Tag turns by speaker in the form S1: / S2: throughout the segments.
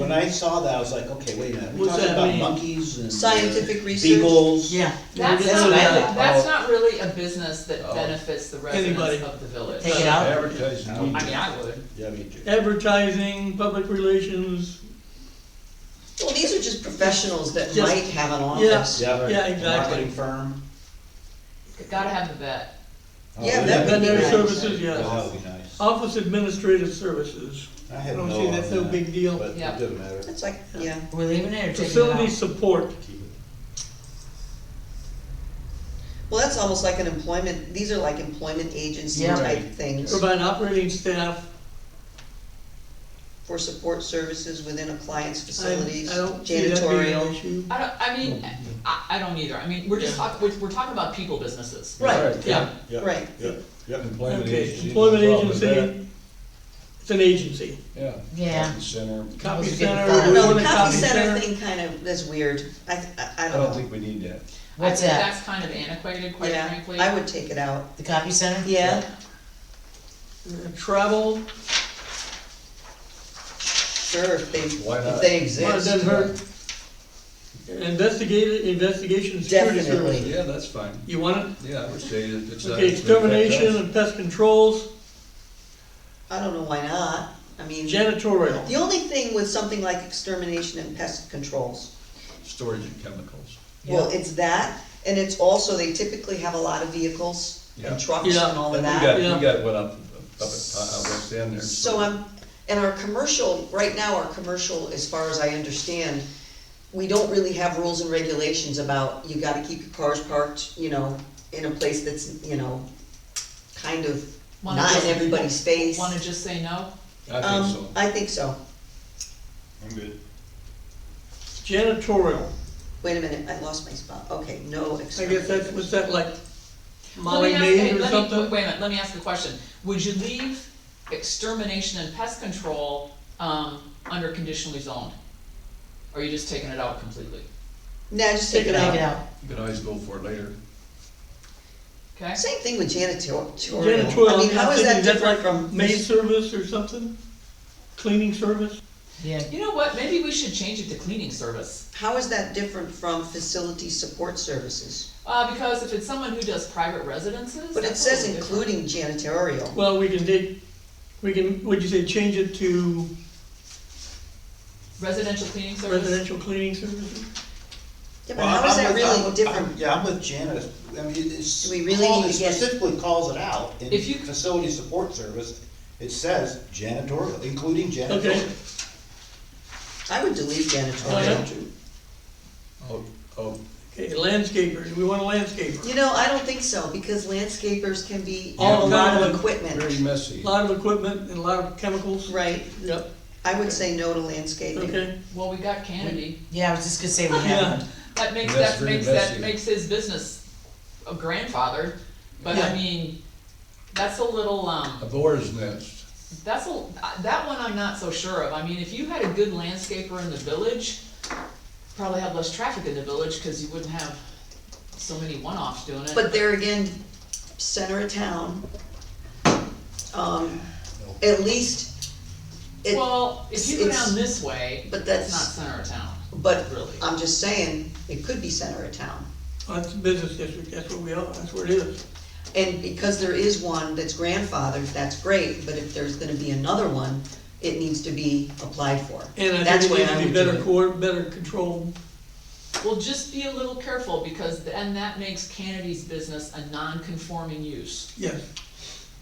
S1: When I saw that, I was like, okay, wait a minute, we
S2: What's
S1: talking
S2: that
S1: about
S2: mean?
S1: monkeys and. uh,
S3: Scientific research?
S1: Beagles.
S2: Yeah.
S4: That's
S2: That's
S4: not,
S2: what I
S4: really-
S2: thought.
S4: that's not really a business that
S1: Oh.
S4: benefits the
S2: Anybody.
S4: residents of the village.
S2: Take it out.
S5: Advertising.
S1: Out.
S4: I mean, I would.
S1: Yeah, me too.
S2: Advertising, public relations,
S3: Well, these are just professionals that
S2: Just-
S3: might have an
S2: yeah,
S3: office.
S1: Yeah,
S2: yeah, exactly.
S1: Marketing firm.
S4: Gotta have the vet.
S1: Oh,
S3: Yeah,
S1: wouldn't
S3: that would be
S2: Veterinary
S3: nice.
S2: services, yeah.
S1: That would be nice.
S2: Office administrative services,
S1: I had
S2: I
S1: no
S2: don't
S1: on
S2: see that's no
S1: that,
S2: big deal.
S1: But it
S4: Yeah.
S1: doesn't matter.
S3: It's like, yeah,
S6: We're leaving it or taking it
S2: facility
S6: out?
S2: support,
S1: Keep it.
S3: well, that's almost like an employment, these are like employment agency
S6: Yeah.
S3: type
S1: Right.
S3: things
S2: provide operating staff,
S3: for support services within a client's
S2: I,
S3: facilities,
S2: I don't see that being an
S3: janitorial.
S2: issue.
S4: I don't, I mean, I, I don't either. I mean, we're just talking, we're, we're talking about people businesses.
S3: Right,
S4: Yeah.
S1: Yep,
S3: Right.
S1: Yep, yep.
S5: Employment
S2: Okay,
S5: agency.
S2: employment
S5: no problem with that.
S2: agency, it's an agency,
S5: Yeah.
S6: Yeah.
S5: Copy Center.
S2: copy
S6: was getting
S2: center,
S6: fired.
S2: we
S3: No,
S2: want
S3: the
S2: a
S3: copy center thing kind of, that's weird, I, th- I, I
S5: I
S3: don't
S5: don't
S3: know.
S5: think Oh, we need that.
S6: What's
S4: I think
S6: that?
S4: that's kind of antiquated, quite
S3: Yeah,
S4: frankly.
S3: I would take it out,
S6: The copy center?
S3: yeah,
S2: Travel,
S3: sure, if they,
S5: Why
S3: if
S5: not?
S3: they
S2: well, it
S3: exist.
S2: doesn't hurt. Investigate, investigation, and security
S3: Definitely.
S2: services,
S5: Yeah, that's fine.
S2: you want it?
S5: Yeah, I would say that it's. not-
S2: Okay, extermination
S5: That's-
S2: and pest controls,
S3: I don't know why not, I mean,
S2: janitorial.
S3: the only thing with something like extermination and pest controls,
S5: Storage of chemicals.
S3: Well, it's that, and it's also, they typically have a lot of vehicles
S5: Yeah.
S3: and trucks
S2: Yeah.
S3: and all
S5: We
S3: of
S5: got,
S3: that.
S5: we
S2: Yeah.
S5: got one up, up at, uh, West End there.
S3: So I'm, and our commercial, right now, our commercial, as far as I understand, we don't really have rules and regulations about, you gotta keep your cars parked, you know, in a place that's, you know, kind of
S4: Wanna
S3: not
S4: just-
S3: in everybody's face.
S4: Wanna just say no?
S5: I
S3: Um,
S5: think so.
S3: I think so.
S1: I'm good.
S2: Janitorial,
S3: Wait a minute, I lost my spot. Okay, no
S2: I guess that's,
S3: exterminator.
S2: was that like
S4: Let me
S2: Molly
S4: ask-
S2: Maid
S4: hey,
S2: or
S4: let me-
S2: something?
S4: Wait a minute, let me ask a question. Would you leave extermination and pest control, um, under conditionally zoned? Or are you just taking it out completely?
S3: Nah, just take it
S6: Take it
S3: out.
S6: out.
S5: You can always go for it later.
S4: Okay?
S3: Same thing with janitorial. I mean,
S2: Janitorial,
S3: how
S2: I'm
S3: is that
S2: thinking that's
S3: different
S2: like
S3: from?
S2: maid service or something? Cleaning service?
S6: Yeah.
S4: You know what, maybe we should change it to cleaning service.
S3: How is that different from facility support services?
S4: Uh, because if it's someone who does private residences.
S3: But it
S4: that's a
S3: says
S4: little
S3: including
S4: different.
S3: janitorial.
S2: Well, we can take, we can, would you say change it to
S4: Residential cleaning service,
S2: residential cleaning services?
S3: Yeah, but how is that really different?
S1: Yeah, I'm with Janice, I mean, it's.
S3: Do we really
S1: call-
S3: need to
S1: it
S3: get-
S1: Specifically calls it out in
S4: If you-
S1: facility support service, it says janitorial, including
S2: Okay.
S1: janitorial.
S3: I would delete janitorial.
S5: Oh, oh,
S2: Okay, landscapers, we want a landscaper.
S3: You know, I don't think so, because landscapers can be,
S2: All
S3: have a lot
S2: kinds
S3: of
S2: of-
S3: equipment,
S5: very messy.
S2: A lot of equipment and a lot of chemicals.
S3: right?
S2: Yep,
S3: I would say no to landscaping.
S2: okay.
S4: well, we got Kennedy,
S6: Yeah, I was just gonna say we
S2: Yeah.
S6: haven't.
S4: that makes,
S5: That's
S4: that
S5: very
S4: makes, that
S5: messy.
S4: makes his business a grandfather, but
S2: Yeah.
S4: I mean, that's a little,
S5: A
S4: um,
S5: boar's nest.
S4: that's a, that one I'm not so sure of, I mean, if you had a good landscaper in the village, probably have less traffic in the village, cause you wouldn't have so many one-offs doing it.
S3: But there again, center of town, um, at least, it,
S4: Well, if you go
S3: it's-
S4: down this way,
S3: but
S4: it's not
S3: that's,
S4: center of town,
S3: but
S4: really.
S3: I'm just saying, it could be center of town.
S2: Well, That's a business district, that's what we are, that's where it is.
S3: And because there is one that's grandfathered, that's great, but if there's gonna be another one, it needs to be applied for.
S2: And I
S3: That's
S2: think
S3: why
S2: it needs to be
S3: would do
S2: better
S3: it.
S2: coor, better controlled.
S4: Well, just be a little careful, because then that makes Kennedy's business a non-conforming use.
S2: Yes,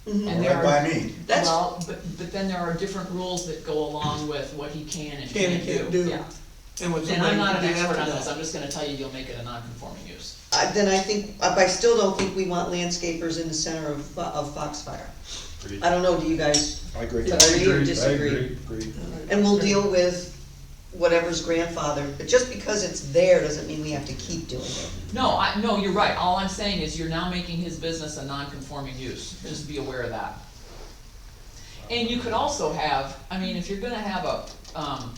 S3: Mhm.
S4: And there
S1: Hmm. Right
S4: are,
S1: by me.
S3: That's-
S4: well, but, but then there are different rules that go along with what he can and
S2: Can and
S4: can't
S2: can't
S4: do,
S2: do.
S4: yeah.
S2: and what
S4: And
S2: somebody
S4: I'm not
S2: can
S4: an
S2: do
S4: expert on
S2: after
S4: this,
S2: that.
S4: I'm just gonna tell you, you'll make it a non-conforming use.
S3: I- Then I think, I I still don't think we want landscapers in the center of, Fo- of Foxfire. I don't know, do you guys
S1: I agree.
S3: agree
S5: I
S3: or
S5: agree.
S3: disagree?
S1: Agree.
S3: And we'll deal with whatever's grandfathered, but just because it's there doesn't mean we have to keep doing it.
S4: No, I, no, you're right, all I'm saying is you're now making his business a non-conforming use, just be aware of that. And you could also have, I mean, if you're gonna have a, um,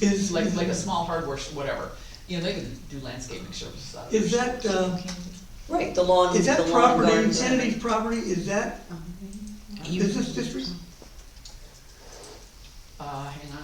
S2: Is,
S4: like, like a small hardware, sh- whatever, you know, they can do landscaping services out of it.
S2: is that, uh,
S3: Right, the lawn,
S2: is
S3: the
S2: that
S3: lawn
S2: property,
S3: gardens.
S2: Kennedy's property, is that business district?
S4: Uh, hang on